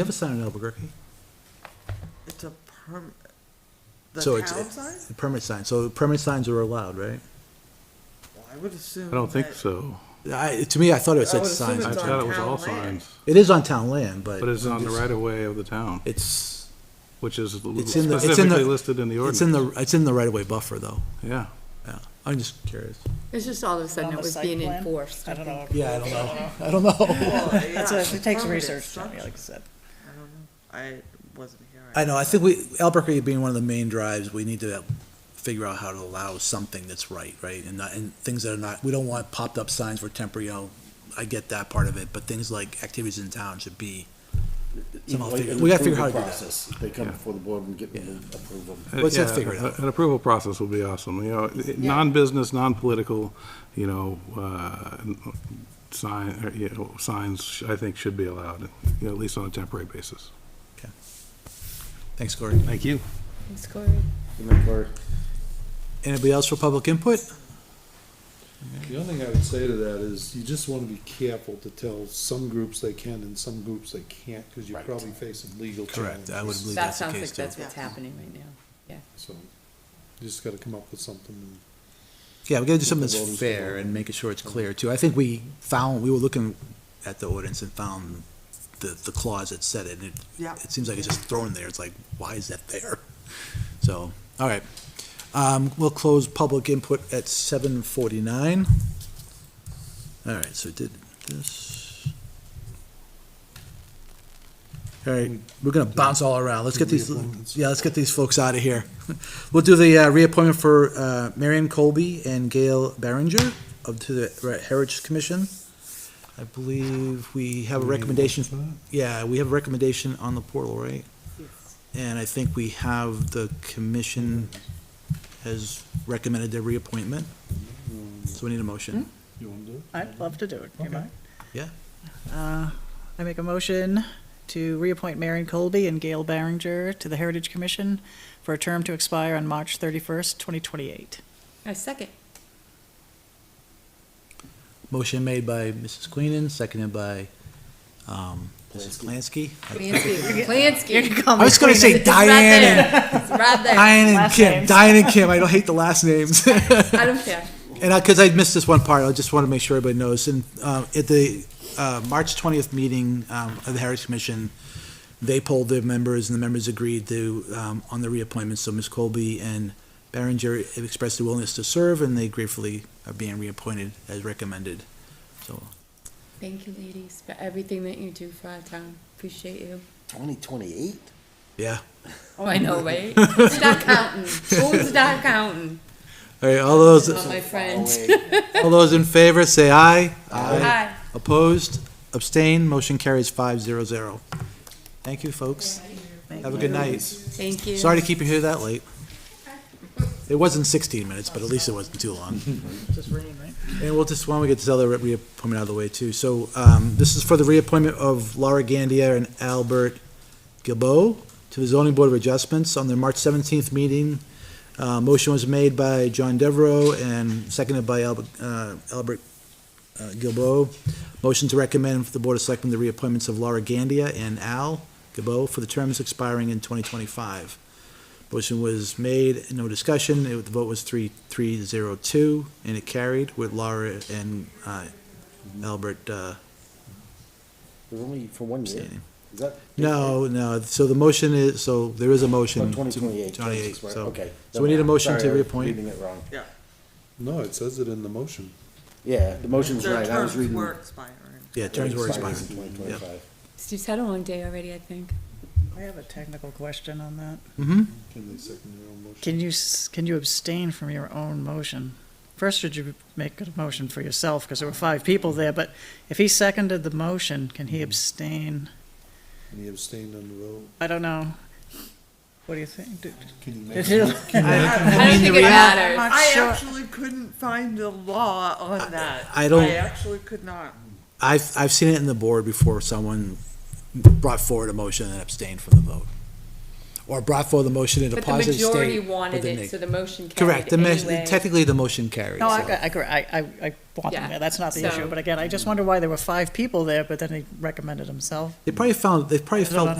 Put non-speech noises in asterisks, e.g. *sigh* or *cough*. have a sign in Albuquerque. It's a perm, the So it's- town it- sign? the Permit sign, so permit signs are allowed, right? Well, I would assume. I don't think that- so. I, to me, I thought it I said would assume signs. I It's on thought it was town all land. signs, It is on town land, but. but it's on the right of way of the town, It's, which is it's in the, it's in the. specifically listed in the It's in ordinance. the, it's in the right of way buffer though, Yeah. yeah, I'm just curious. It's just all of a sudden On it the was site being plan? enforced. I don't know. Yeah, I don't know, I don't know. Well, yeah, That's what, it's a it takes permanent research, Tony, structure. like I said. I don't know, I wasn't here. *laughs* I know, I think we, Albuquerque being one of the main drives, we need to figure out how to allow something that's right, right? And not, and things that are not, we don't want popped up signs for temporary, you know, I get that part of it, but things like activities in town should be somehow Like figured, an we gotta figure out how to approval do that. process. They come Yeah. before the board and get, them to approve them. Let's Yeah, just figure it out. An approval process will be awesome, you know, it- non-business, non-political, you know, uh, sign, or, you know, signs, I think, should be allowed, you know, at least on a temporary basis. Thanks, Corey. Thank you. It's good. And then we're- Anybody else for public input? The only thing I would say to that is you just wanna be careful to tell some groups they can and some groups they can't, cause you're Right. probably facing legal Correct, challenges. I would believe That that's the sounds case like too. that's what's happening right now. So, you just gotta come up with something. Yeah, we gotta do something With the that's voters fair involved. and making sure it's clear too. I think we found, we were looking at the ordinance and found the, the clause that said it, and it Yeah. it seems like it's just thrown there. It's like, why is that there? So, all right. Um, we'll close public input at seven forty-nine. All right, so did this. All right, we're gonna bounce all around. Let's get these, Reappointments. yeah, let's get these folks out of here. We'll do the, uh, reappointment for, uh, Marion Colby and Gail Barringer of, to the Heritage Commission. I believe we have a recommendation yeah, we have a recommendation on the portal, right? And I think we have the commission has recommended their reappointment, so we need a motion. You wanna do it? I'd love to do it, do you mind? Yeah. Uh, I make a motion to reappoint Marion Colby and Gail Barringer to the Heritage Commission for a term to expire on March thirty-first, twenty twenty-eight. A second. Motion made by Mrs. Queenan, seconded by, um, Mrs. Plansky. *laughs* Plansky, Plansky. I was gonna say It's right Diane and, there. It's right there. Diane and Last Kim, names. Diane and Kim, I don't hate the last names. *laughs* I don't care. And I, because I missed this one part, I just want to make sure everybody knows, and, uh, at the, uh, March twentieth meeting, um, of the Heritage Commission, they polled their members, and the members agreed to, um, on the reappointments, so Ms. Colby and Barringer expressed their willingness to serve, and they gratefully are being reappointed as recommended, so. Thank you, ladies, for everything that you do for our town. Appreciate you. Twenty twenty-eight? Oh, I know, *laughs* right? Who's not counting? Who's not counting? All right, all those, Oh, my friends. all those in favor, say aye. *laughs* Hi. Opposed, abstained, motion carries five zero zero. Thank you, folks. Have a good night. Thank you. Sorry to keep you here that late. It wasn't 16 minutes, but at least it wasn't too long. Just reading, right? And we'll just, why don't we get this other reappointment out of the way, too? So um, this is for the reappointment of Laura Gandia and Albert Gilbo to the Zoning Board of Adjustments on their March 17th meeting. Uh, Motion was made by John Devereaux and seconded by Albert uh, Albert, uh, Gilbo. Motion to recommend for the Board of Selectmen the reappointments of Laura Gandia and Al Gilbo for the terms expiring in 2025. Motion was made, no discussion, It- the vote was three, three, zero, two, and it carried with Laura and, uh, Albert, uh, There's only for one year. abstaining. Is that? No, no, so the motion is, so there is a motion. Oh, twenty twenty-eight. 28, so- Okay. so we need a motion to Sorry, I was reappoint. Reading it wrong. No, it says it in the motion. Yeah, the motion's Their right. I was terms reading. were expiring. Yeah, terms were expired. Twenty twenty-five. Steve's had a long day already, I think. I have a technical question on that. Mm-hmm, Can they second their own motion? Can you, s- can you abstain from your own motion? First, should you make a motion for yourself, because there were five people there, but if he seconded the motion, can he abstain? And he abstained on the vote. I don't know. What do you think? Do- Can you Did make? you- I don't think it matters. I'm I sure. actually couldn't find the law on that. I don't- I actually could not. I've, I've seen it in the board before, someone brought forward a motion and abstained from the vote. or brought forward the motion in a But the positive state. majority with wanted a it, neg- so the motion Correct, carried the, mes- anyway. technically, the motion carries. No, I, so. I, agree. I, I, I want them Yeah. there, that's not the So- issue, but again, I just wonder why there were five people there, but then he recommended himself. They probably found, they probably I don't know felt